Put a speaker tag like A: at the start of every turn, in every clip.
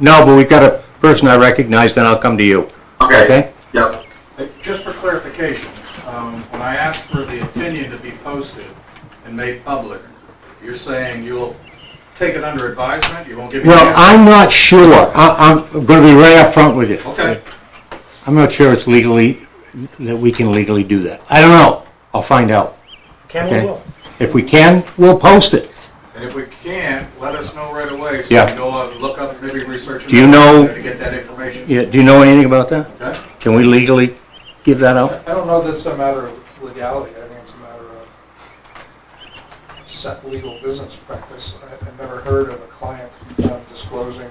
A: No, but we've got a person I recognize, then I'll come to you. Okay.
B: Yep.
C: Uh, Just for clarification, um, when I asked for the opinion to be posted and made public, you're saying you'll take it under advisement, you won't give me an
A: Well,
C: answer?
A: I'm not sure. I, I'm gonna be right up front with you.
C: Okay,
A: I'm not sure it's legally, that we can legally do that. I don't know. I'll find out.
D: Can
A: Okay.
D: we will.
A: If we can, we'll post it.
C: and if we can't, let us know right away, so
A: Yeah.
C: we know, uh, look up, maybe research.
A: Do you know-
C: To get that information,
A: Yeah, do you know anything about that?
C: okay?
A: Can we legally give that out?
D: I don't know that it's a matter of legality, I think it's a matter of set legal business practice. I- I've never heard of a client um, disclosing.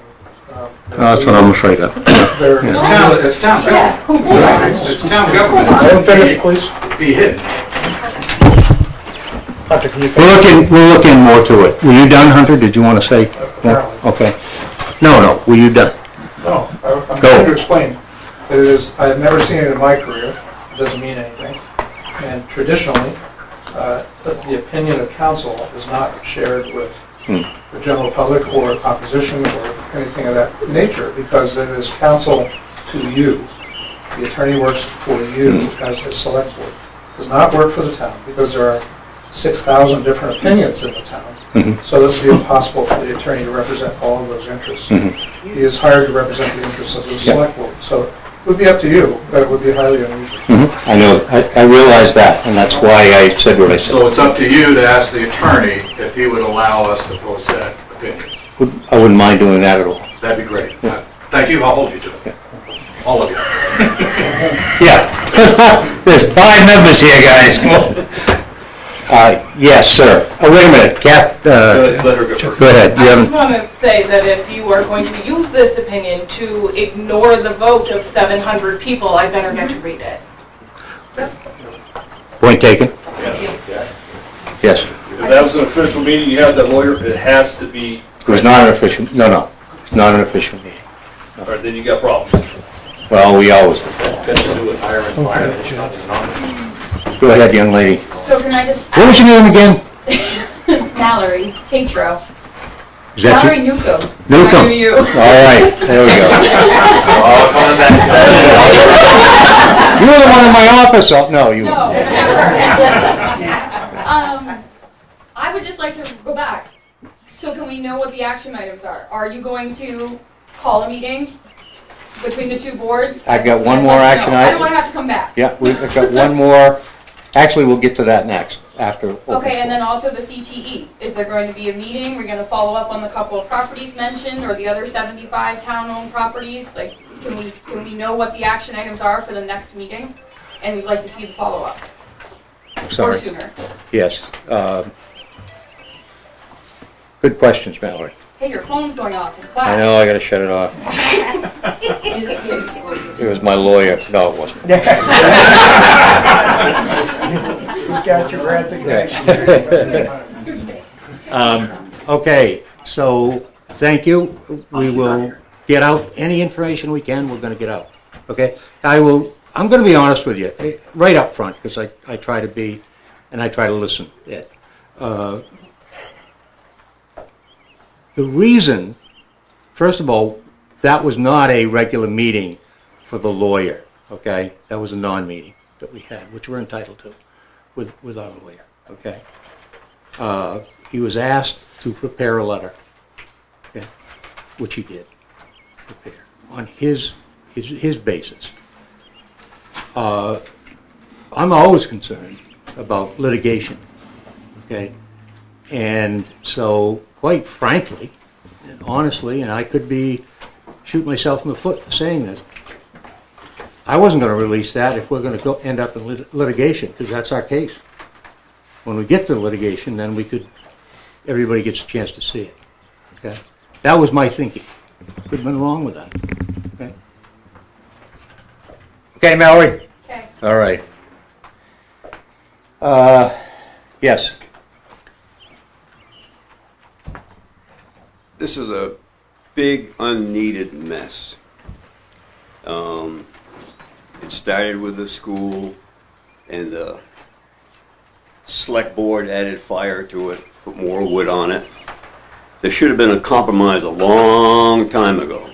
D: um, their
A: afraid of.
D: their-
C: It's town, it's town government. It's it's town government.
D: Let him finish, please.
C: Be hidden.
D: Hunter, can you finish?
A: We're looking, we're looking more to it. Were you done, Hunter? Did you wanna say? more?
D: Apparently.
A: Okay. No, no, were you done?
D: No, I- I'm
A: Go.
D: trying to explain. It is, I've never seen it in my career, it doesn't mean anything. And traditionally, uh, the the opinion of council is not shared with the general public or opposition or anything of that nature, because it is counsel to you. The attorney works for you as a select board, does not work for the town, because there are 6,000 different opinions in the town. So this would be impossible for the attorney to represent all of those interests. He is hired to represent the interests of the select board, so it would be up to you, but it would be highly unusual.
A: Mm-hmm. I know, I, I realize that, and that's why I said what I said.
C: So it's up to you to ask the attorney if he would allow us to post that opinion.
A: I wouldn't mind doing that at all.
C: That'd be great. Uh, Thank you, I'll hold you to it. All of you.
A: Yeah. There's five members here, guys. Uh, yes, sir. Oh, wait a minute, Cap, uh,
C: Let her go first.
A: go ahead, you
E: I just
A: haven't,
E: want to say that if you are going to use this opinion to ignore the vote of 700 people, I better get to read it.
A: point taken? Yes.
F: If that was an official meeting, you have that lawyer, it has to be,
A: It was not an official, no, no, it's not an official meeting.
F: or then you got problems.
A: Well, we always,
F: Then you do it higher and
A: go ahead, young lady.
G: So can I just
A: What was your name again?
G: ask Mallory Tatro?
A: Is that
G: Mallory
A: you?
G: Newcomb.
A: Newcomb.
G: I knew you.
A: All right, there we go. You were the one in my office, oh, no, you
G: No.
A: weren't.
G: Um, I would just like to go back. So can we know what the action items are? Are you going to call a meeting between the two boards?
A: I've got one
G: I'd
A: more
G: like to
A: action
G: know. I don't
A: item.
G: want to have to come back.
A: Yeah, we've got one more, actually, we'll get to that next, after. open
G: Okay,
A: forum.
G: and then also the CTE. Is there going to be a meeting? We're going to follow up on the couple of properties mentioned or the other 75 town-owned properties? Like, can we, can we know what the action items are for the next meeting? And we'd like to see the follow-up or
A: Sorry.
G: sooner.
A: Yes. um, Good questions, Mallory.
G: Hey, your phone's going off in
A: I
G: class.
A: know, I gotta shut it off. It was my lawyer. No, it wasn't.
D: You've got your resignation.
A: Um, Okay, so, thank you. We will get out any information we can, we're gonna get out. Okay? I will, I'm gonna be honest with you, eh, right up front, because I, I try to be, and I try to listen. Yeah. Uh, The reason, first of all, that was not a regular meeting for the lawyer, okay? That was a non-meeting that we had, which we're entitled to with, with our lawyer, okay? Uh, He was asked to prepare a letter, okay, which he did prepare on his, his, his basis. Uh, I'm always concerned about litigation, okay? And so, quite frankly, and honestly, and I could be, shoot myself in the foot for saying this, I wasn't gonna release that if we're gonna go, end up in lit- litigation, because that's our case. When we get to litigation, then we could, everybody gets a chance to see it, okay? That was my thinking. Could have been wrong with that, okay? Okay, Mallory?
G: Okay.
A: All right. Uh, yes.
H: this is a big unneeded mess. Um, it started with the school and the select board added fire to it, put more wood on it. There should have been a compromise a long time ago.